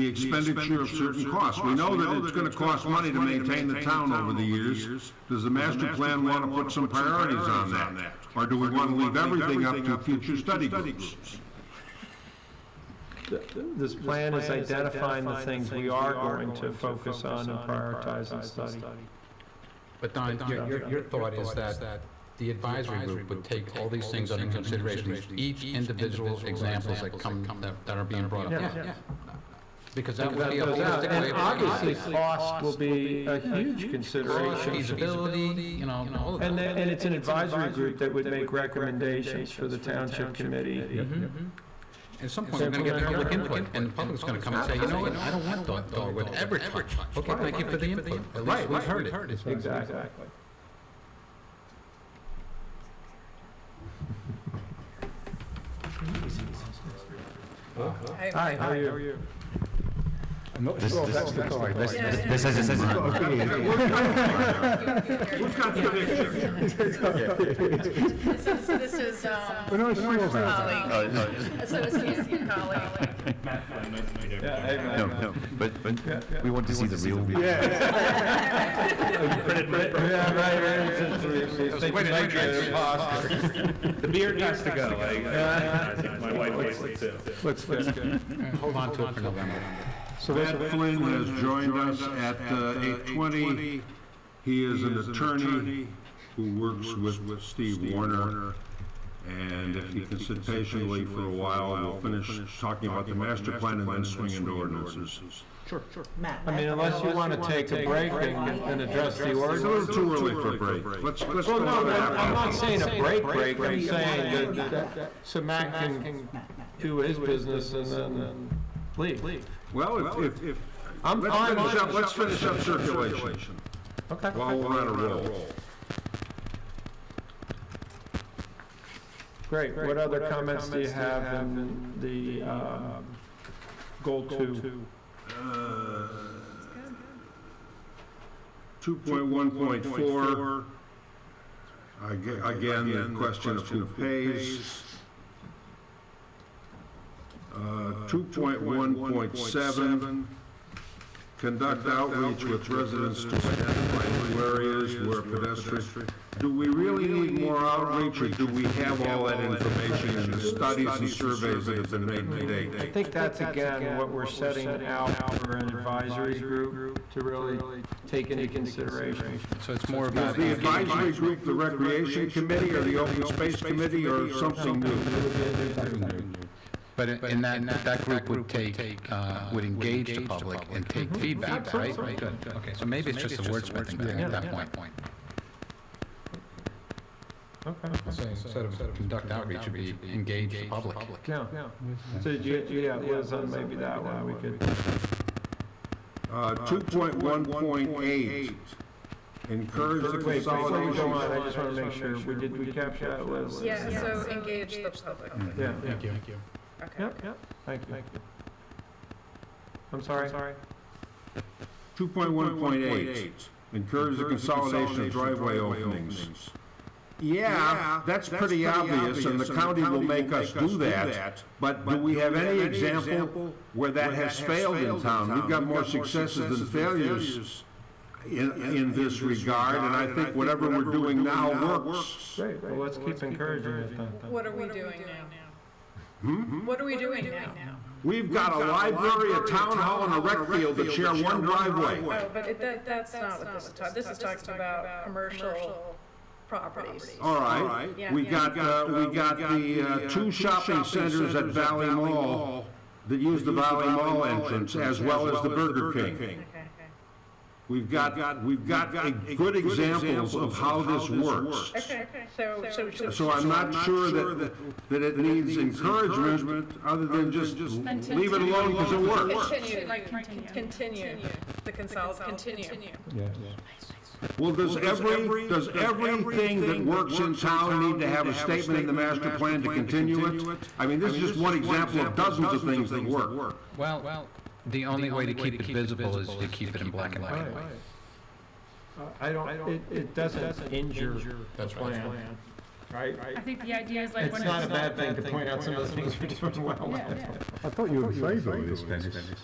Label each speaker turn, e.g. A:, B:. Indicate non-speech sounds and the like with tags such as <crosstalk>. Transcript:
A: the expenditure of certain costs. We know that it's gonna cost money to maintain the town over the years. Does the master plan wanna put some priorities on that? Or do we wanna leave everything up to future study groups?
B: This plan is identifying the things we are going to focus on and prioritize and study.
C: But Don, your, your, your thought is that the advisory group would take all these things under consideration, each individual examples that come, that- that are being brought up.
B: Yeah,
C: Because that would
B: That
C: be a
B: goes out,
C: holistic way
B: and
C: of.
B: obviously, cost will be a huge consideration.
C: Feasibility, you know, all of
B: And,
C: that.
B: they- and it's an advisory group that would make recommendations for the township committee.
C: At Mm-hmm. some point, we're gonna get public input, and the public's gonna come and say, you know what, I don't want Dog- Dogwood ever touched. Okay, thank you for the input, at least we've heard it.
B: Exactly. Hi, how are you?
D: This is, this is.
A: Who's got the picture?
E: This is, this is, um, colleague, associate colleague.
B: Yeah, hey, Matt.
D: But, but we want to see the real.
B: Yeah, right, right. It's- it's- it's- it's-
C: Wait a
B: thank you,
C: minute.
B: imposter.
F: The beard has to go. I- I- <laughs> My wife likes it too.
B: Let's, let's go.
C: Hold on to it for November.
B: So
A: Matt
B: that's,
A: Flynn has joined us at uh, eight twenty. He is an attorney who works with Steve Warner. And if he can sit patiently for a while, we'll finish talking about the master plan and then swing into ordinances.
B: I mean, unless you want to take a break and, and address the
A: It's a little
B: ordinance.
A: too early for a break. Let's, let's go
B: Well,
A: to
B: no, I'm I'm not
A: that.
B: saying a break, break, I'm saying that, that- so Matt can do his business and then leave.
A: Well, if, if,
B: I'm
A: let's
B: fine.
A: finish up, let's finish up circulation
B: Okay.
A: while we're on a roll.
B: Great, what other comments do you have in the, um, goal two?
A: Two point one point four. Again, the question of who pays. Uh, Two point one point seven, conduct outreach with residents to identify new areas where pedestrian. Do we really need more outreach, or do we have all that information in the studies and surveys that have been made to date?
B: I think that's again what we're setting out for an advisory group to really take into consideration.
C: So it's more about.
A: The advisory group, the recreation committee, or the open space committee, or something new?
C: But in- in that, that group would take, uh, would engage the public and take feedback, right? Good. Okay, so maybe it's just a wordsmithing thing at that point.
B: Okay.
C: So Instead of conduct outreach, would be engage the public.
B: Yeah, yeah. So did you, yeah, Liz, on maybe that one, we could,
A: Uh, 2.1.8, encourage the
B: wait, before we go
A: consolidation.
B: on, I just wanna make sure, we did, we capture that, Liz?
E: Yeah, so engage the public.
B: Yeah, yeah.
C: Thank you.
E: Okay.
B: Yep, yep, thank you. I'm sorry? Sorry.
A: 2.1.8, encourage the consolidation of driveway openings. Yeah, that's pretty obvious, and the county will make us do that, but do we have any example where that has failed in town? We've got more successes than failures in, in this regard, and I think whatever we're doing now works.
B: Great, well, let's keep encouraging it then.
E: What are we doing now? What are we doing now?
A: We've got a library, a town hall, and a rec field that share one driveway.
E: No, but it, that, that's not what this is talking, this is talking about commercial properties.
A: All right,
E: Yeah.
A: we got, uh, we got the, uh, two shopping centers at Valley Mall that use the Valley Mall entrance as well as the Burger King.
E: Okay, okay.
A: We've got, we've got a good examples of how this works.
E: Okay, okay, so, so, so.
A: So I'm not sure that, that it needs encouragement other than just leave it alone because it works.
E: Continue, continue, the consult, continue.
A: Well, does every, does everything that works in town need to have a statement in the master plan to continue it? I mean, this is just one example of dozens of things that work.
C: Well, the only way to keep it visible is to keep it in black and white.
B: Uh, I don't, it, it doesn't injure the
C: That's right.
B: plan, right?
G: I think the idea is like
B: It's
G: when
B: not a
G: it's,
B: <laughs> bad thing to point out some of the things we're doing well.
G: yeah, yeah.
H: I thought you were in favor of this, Dennis.